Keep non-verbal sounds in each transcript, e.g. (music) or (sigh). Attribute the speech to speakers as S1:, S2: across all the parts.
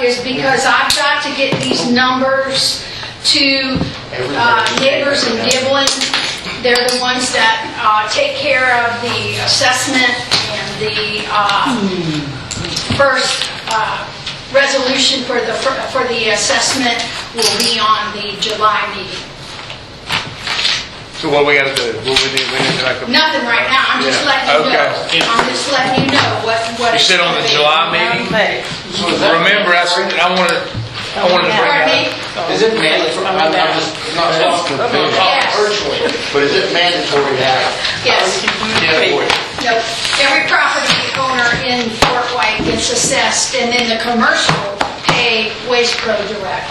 S1: is because I've got to get these numbers to uh, Nivers and Giblin. They're the ones that uh, take care of the assessment and the uh, first uh, resolution for the, for the assessment will be on the July meeting.
S2: So what we gotta do, what we need, we need to like a...
S1: Nothing right now, I'm just
S2: Yeah,
S1: letting you
S2: okay.
S1: know. I'm just letting you know what, what.
S2: You
S1: it's
S2: said on
S1: gonna
S2: the
S1: be.
S2: July meeting? Remember, I said, I wanted, I wanted to bring
S1: Pardon me?
S2: that.
S3: Is it mandatory, I'm I'm just, not talking, I'm talking
S1: Yes.
S3: virtually, but is it mandatory now?
S1: Yes.
S3: Mandatory.
S1: Nope. Every property owner in Fort White gets assessed, and then the commercial pay Waste Pro Direct.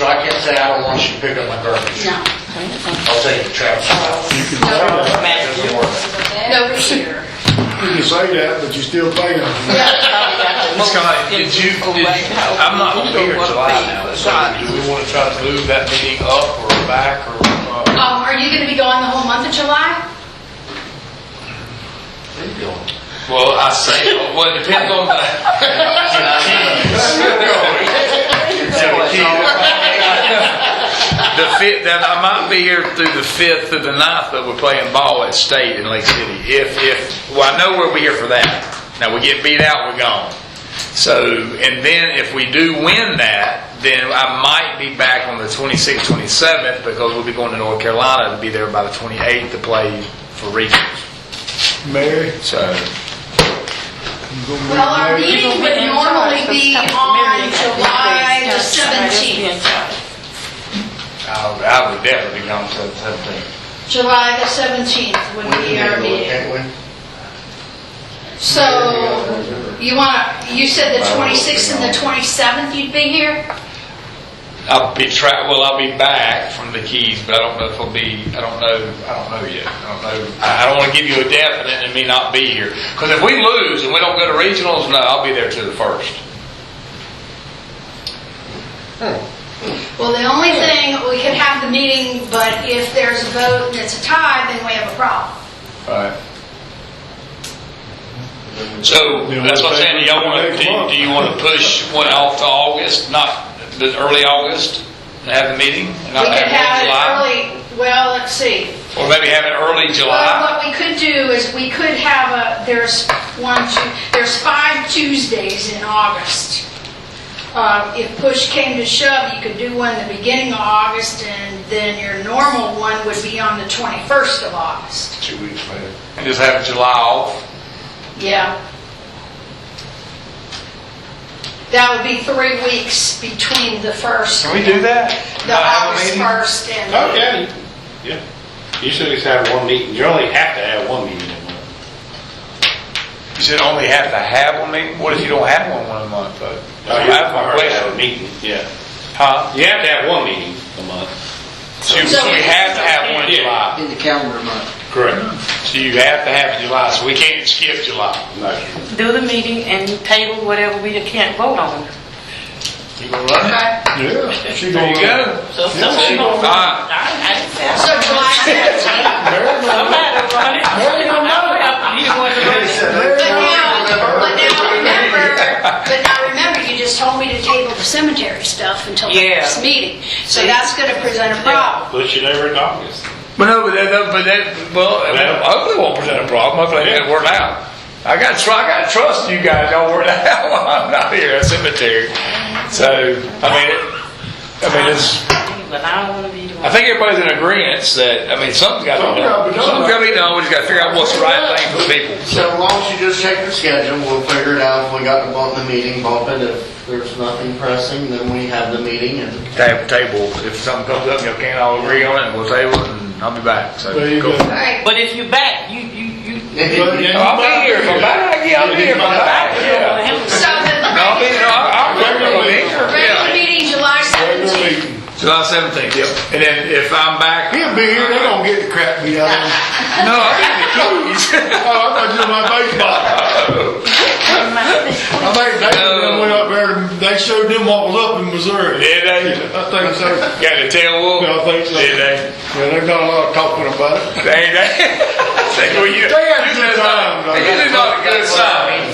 S3: So I can't say I don't want you to pick up my garbage,
S1: No, Oh,
S3: I'll take it to Travis.
S1: no,
S3: That doesn't work.
S1: no here.
S4: You can say that, but you still paying them.
S2: It's kinda like, did you, did you- I'm not gonna be here in July now, so do we wanna try to move that meeting up or back or, uh,
S1: Um, are you gonna be gone the whole month of July?
S2: well, I say, well, it depends on the... The fifth, then I might be here through the fifth through the ninth, but we're playing ball at state in Lake City. If, if, well, I know we'll be here for that. Now, we get beat out, we're gone. So, and then if we do win that, then I might be back on the twenty-sixth, twenty-seventh, because we'll be going to North Carolina to be there by the twenty-eighth to play for regions.
S4: Mary,
S2: So,
S4: you gonna be
S1: Well, our
S4: Mary?
S1: meeting would normally be on July the 17th.
S2: I, I would definitely be gone to the seventeenth.
S1: July the 17th would be our meeting.
S3: Can't we?
S1: So, you wanna, you said the 26th and the 27th you'd be here?
S2: I'll be tra, well, I'll be back from the Keys, but I don't know if I'll be, I don't know, I don't know yet. I don't know, I, I don't wanna give you a definite and me not be here. Cause if we lose and we don't go to regionals, no, I'll be there to the first.
S1: Well, the only thing, we could have the meeting, but if there's a vote and it's a tie, then we have a problem.
S2: Right. So, that's what I'm saying, do y'all wanna, do you- do you wanna push one off to August, not the early August? And have the meeting and
S1: We
S2: not
S1: could have
S2: have it
S1: it
S2: in July?
S1: early, well, let's see.
S2: Or maybe have it early
S1: Well,
S2: July?
S1: what we could do is, we could have a, there's one, two, there's five Tuesdays in August. Uh, If push came to shove, you could do one the beginning of August, and then your normal one would be on the 21st of August.
S2: Two weeks later. And just have July off?
S1: Yeah. That would be three weeks between the first
S2: Can we do that?
S1: The
S2: Not have a
S1: August
S2: meeting?
S1: first and,
S5: Okay. Yeah. You should just have one meeting. You only have to have one meeting a month.
S2: You should only have to have one meeting? What if you don't have one one a month, though? That's my
S5: Or have a
S2: question.
S5: meeting, yeah.
S2: Huh?
S5: You have to have one meeting a month.
S2: So you- so we have to have one in
S5: Yeah.
S2: July.
S3: In the calendar month.
S5: Correct.
S2: So you have to have July, so we can't skip July.
S5: No.
S6: do the meeting and table whatever we can't vote on.
S2: You gonna run it?
S1: okay,
S4: Yeah, she
S2: There
S4: gonna.
S2: you go.
S6: So if
S4: Yeah.
S6: somebody gonna run,
S2: Alright.
S6: I I didn't say I
S1: so July
S2: (laughs)
S1: seventeenth,
S6: Somebody gonna run it. Somebody gonna run it. You want to run it.
S1: but now, but now remember, but now remember, you just told me to table the cemetery stuff until the
S6: Yeah.
S1: next meeting. So that's gonna present a problem.
S5: Push it over in August.
S2: But no, but that, but that, well, that hopefully won't present a problem, hopefully they can work it out. I got, tr- I got to trust you guys, y'all work it (laughs) out while I'm not here at cemetery. So, I mean, it- I mean, it's,
S6: But I don't wanna be the
S2: I
S6: one.
S2: think everybody's in agreement that, I mean, something's gotta be
S4: Something's gotta be
S2: done.
S4: done.
S2: Something's gotta be done, we just gotta figure out what's the right thing for people.
S3: So as long as you just check the schedule, we'll figure it out. If we got to bump the meeting, bump it. If there's nothing pressing, then we have the meeting and.
S2: Table, table, if something comes up, y'all can't all agree on it, we'll table it and I'll be back, so.
S4: There you
S2: cool.
S4: go.
S1: All right,
S6: But if you back, you, you, you.
S2: Oh, I'll be here, if I'm back, yeah, I'll be here, if I'm back,
S6: you don't wanna
S2: yeah.
S6: handle
S1: so
S6: it.
S2: No, I'll be, no,
S1: the
S2: I'll, I'll be here,
S1: regular
S2: yeah.
S1: meeting, July
S4: Regular
S1: seventeenth.
S4: meeting.
S2: July seventeenth, yep. And then if I'm back,
S4: He'll be here, they gonna get the crap beat out of him.
S2: no, I'll be the keys. (laughs)
S4: Oh, I thought you were my baseball. I think they
S2: No.
S4: went up there, and they showed them what was up in Missouri.
S2: Did they?
S4: I think so.
S2: Got the tail whoop?
S4: Yeah, I think so.
S2: Did they?
S4: Yeah, they've done a lot of talking about it.
S2: Ain't they? (laughs) Say, well, you.
S4: They had a good
S2: you did not-
S4: time, though.
S2: You did not a good sign.